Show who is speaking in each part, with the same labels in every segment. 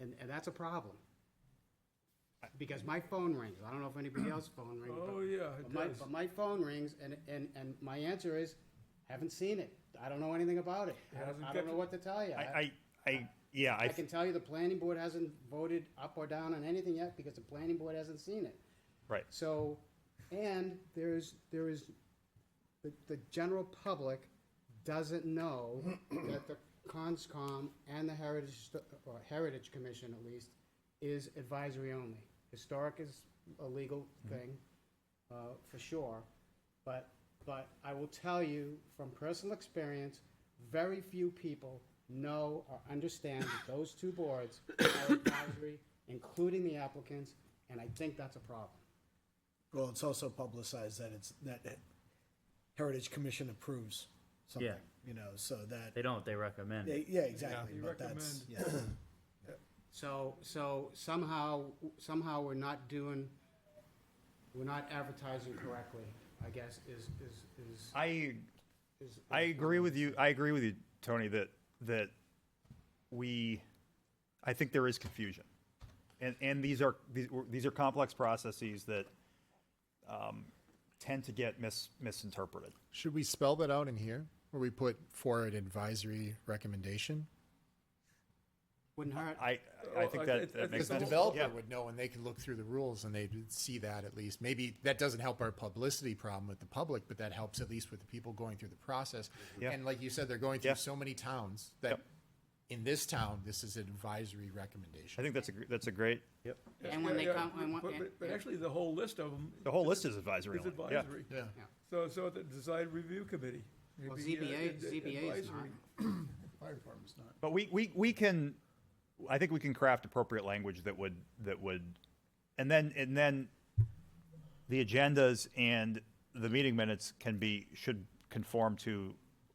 Speaker 1: And, and that's a problem. Because my phone rings, I don't know if anybody else's phone rings. but-
Speaker 2: Oh, yeah, it
Speaker 1: But my,
Speaker 2: does.
Speaker 1: but my phone rings and, and, and my answer is, haven't seen it, I don't know anything about it. I don't-
Speaker 2: hasn't
Speaker 1: I
Speaker 2: got
Speaker 1: don't know
Speaker 2: to-
Speaker 1: what to tell you.
Speaker 3: I, I, I, yeah, I,
Speaker 1: I can tell you the planning board hasn't voted up or down on anything yet because the planning board hasn't seen it.
Speaker 3: right.
Speaker 1: So, and there is, there is, the, the general public doesn't know that the Conscom and the Heritage, Sto- or Heritage Commission at least, is advisory only. Historic is a legal thing, uh, for sure, but, but I will tell you from personal experience, very few people know or understand that those two boards are advisory, including the applicants, and I think that's a problem.
Speaker 4: Well, it's also publicized that it's, that Heritage Commission approves something,
Speaker 5: Yeah.
Speaker 4: you know, so
Speaker 5: They
Speaker 4: that,
Speaker 5: don't, they recommend.
Speaker 4: they- yeah, exactly,
Speaker 2: They
Speaker 4: but that's, yeah.
Speaker 1: So, so somehow, somehow we're not doing, we're not advertising correctly, I guess, is, is, is.
Speaker 3: I,
Speaker 1: is-
Speaker 3: I agree with you. I agree with you, Tony, that, that we, I think there is confusion. And, and these are, these, were- these are complex processes that, um, tend to get mis, misinterpreted.
Speaker 6: Should we spell that out in here, where we put for an advisory recommendation?
Speaker 1: Wouldn't hurt.
Speaker 3: I, I
Speaker 2: Well,
Speaker 3: think
Speaker 2: I
Speaker 3: that,
Speaker 2: think- I
Speaker 3: that makes
Speaker 2: think the
Speaker 3: sense.
Speaker 2: whole-
Speaker 3: Yeah.
Speaker 6: would know, and they could look through the rules and they'd see that at least. Maybe that doesn't help our publicity problem with the public, but that helps at least with the people going through the process.
Speaker 3: Yeah.
Speaker 6: And like you said, they're going through
Speaker 3: Yeah.
Speaker 6: so many towns that
Speaker 3: Yep.
Speaker 6: in this town, this is an advisory recommendation.
Speaker 3: I think that's a, gr- that's a great,
Speaker 1: And when they
Speaker 2: Yeah, yeah,
Speaker 1: come, and when-
Speaker 2: But, but- but actually, the whole list of them
Speaker 3: the whole list is advisory
Speaker 2: is
Speaker 3: only. Yeah.
Speaker 2: advisory.
Speaker 6: Yeah.
Speaker 2: So, so the design review committee. it'd
Speaker 1: well,
Speaker 2: be, uh,
Speaker 1: ZBA,
Speaker 2: ad-
Speaker 1: ZBA is not.
Speaker 2: advisory.
Speaker 4: Fire department's not.
Speaker 3: But we, we, we can, I think we can craft appropriate language that would, that would, and then, and then the agendas and the meeting minutes can be, should conform to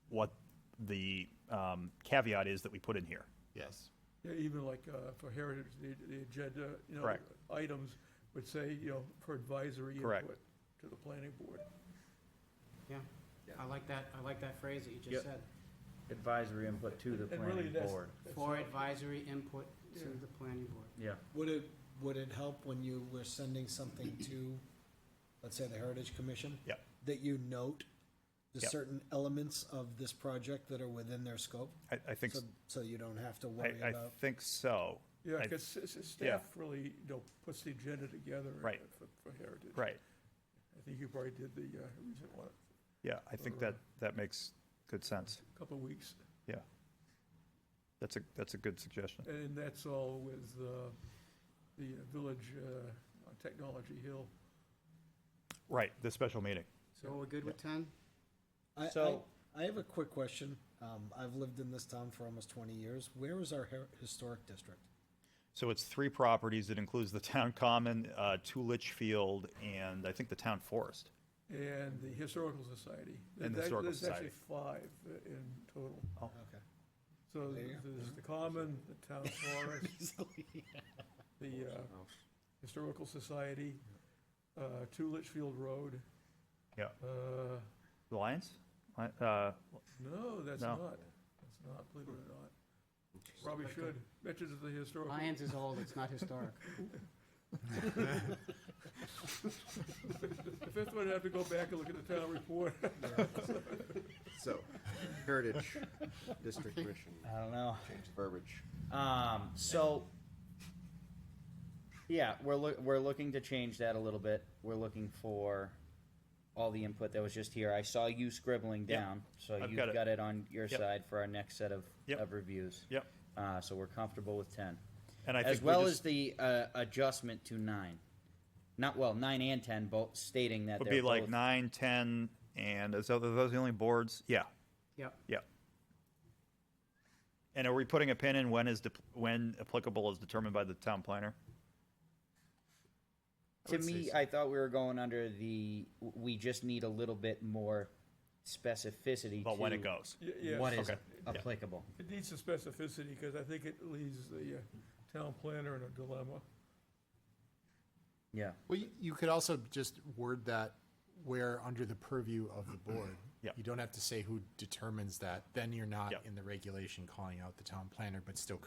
Speaker 3: what the um, caveat is that we put in here.
Speaker 6: Yes.
Speaker 2: Yeah, even like, uh, for heritage, the, the agenda, you know,
Speaker 3: Correct.
Speaker 2: items would say, you know, for advisory
Speaker 3: Correct.
Speaker 2: input to the planning board.
Speaker 1: Yeah, I like that, I like that phrase that you just said.
Speaker 5: Advisory input to the
Speaker 2: And really,
Speaker 5: planning
Speaker 2: that's-
Speaker 5: board.
Speaker 2: that's
Speaker 1: For
Speaker 2: not-
Speaker 1: advisory input to the planning board.
Speaker 5: Yeah,
Speaker 4: Would it, would it help when you were sending something to, let's say, the Heritage Commission?
Speaker 3: Yep.
Speaker 4: That you note the
Speaker 3: Yep.
Speaker 4: certain elements of this project that are within their scope?
Speaker 3: I, I think,
Speaker 4: So,
Speaker 3: s-
Speaker 4: so you don't have to worry
Speaker 3: I, I
Speaker 4: about,
Speaker 3: think so.
Speaker 2: Yeah,
Speaker 3: I-
Speaker 2: because staff really, you know, puts the agenda together.
Speaker 3: Right.
Speaker 2: uh, For, for heritage.
Speaker 3: Right,
Speaker 2: I think you probably did the, uh, recent one,
Speaker 3: yeah, I think that, that makes good sense,
Speaker 2: a couple of weeks.
Speaker 3: yeah. That's a, that's a good suggestion.
Speaker 2: And that's all with uh, the Village uh, on Technology Hill.
Speaker 3: Right, the special meeting.
Speaker 1: So we're good with ten?
Speaker 4: I, I,
Speaker 5: So-
Speaker 4: I have a quick question. Um, I've lived in this town for almost twenty years. Where is our her- historic district?
Speaker 3: So it's three properties. It includes the town common, uh, two Litchfield, and I think the town forest.
Speaker 2: And the Historical Society.
Speaker 3: And the
Speaker 2: There's act-
Speaker 3: Historical
Speaker 2: There's actually five uh, in total.
Speaker 4: Okay.
Speaker 2: So
Speaker 4: There you go.
Speaker 2: there's the Common, the Town Forest, the uh, Historical Society, uh, Two Litchfield Road.
Speaker 3: Yeah.
Speaker 2: Uh,
Speaker 3: The Lions? Li- Uh,
Speaker 2: No, that's
Speaker 3: No.
Speaker 2: not. That's not, believe it or not. Probably should. Veterans of the Historical.
Speaker 1: Lions is old, it's not historic.
Speaker 2: The fifth one, I'd have to go back and look at the town report.
Speaker 7: So, Heritage District Commission,
Speaker 5: I don't know.
Speaker 7: change the verbiage.
Speaker 5: Um, so, yeah, we're loo- we're looking to change that a little bit. We're looking for all the input that was just here. I saw you scribbling
Speaker 3: Yep.
Speaker 5: down, so
Speaker 3: I've
Speaker 5: you've
Speaker 3: got it.
Speaker 5: got it on your
Speaker 3: Yep.
Speaker 5: side for our next set of,
Speaker 3: Yep.
Speaker 5: of reviews.
Speaker 3: Yep.
Speaker 5: Uh, so we're comfortable with ten.
Speaker 3: And I
Speaker 5: as
Speaker 3: think we
Speaker 5: well
Speaker 3: just-
Speaker 5: as the uh, adjustment to nine, not well nine and ten, both stating that
Speaker 3: would
Speaker 5: they're
Speaker 3: be like
Speaker 5: both-
Speaker 3: nine, ten, and is, are those the only boards? Yeah,
Speaker 1: Yep,
Speaker 3: yeah. And are we putting a pin in when is, dep- when applicable is determined by the town planner?
Speaker 5: To me, I thought we were going under the. w- We just need a little bit more specificity
Speaker 3: About when
Speaker 5: to
Speaker 3: it goes.
Speaker 2: Y- yes.
Speaker 5: What is
Speaker 3: Okay.
Speaker 5: applicable?
Speaker 2: It needs some specificity, because I think it leaves the uh, town planner in a dilemma.
Speaker 5: Yeah.
Speaker 6: Well, you, you could also just word that where under the purview of the board.
Speaker 3: Mm-hmm. Yeah.
Speaker 6: You don't have to say who determines that, then you're not
Speaker 3: Yeah.
Speaker 6: in the regulation calling out the town planner, but still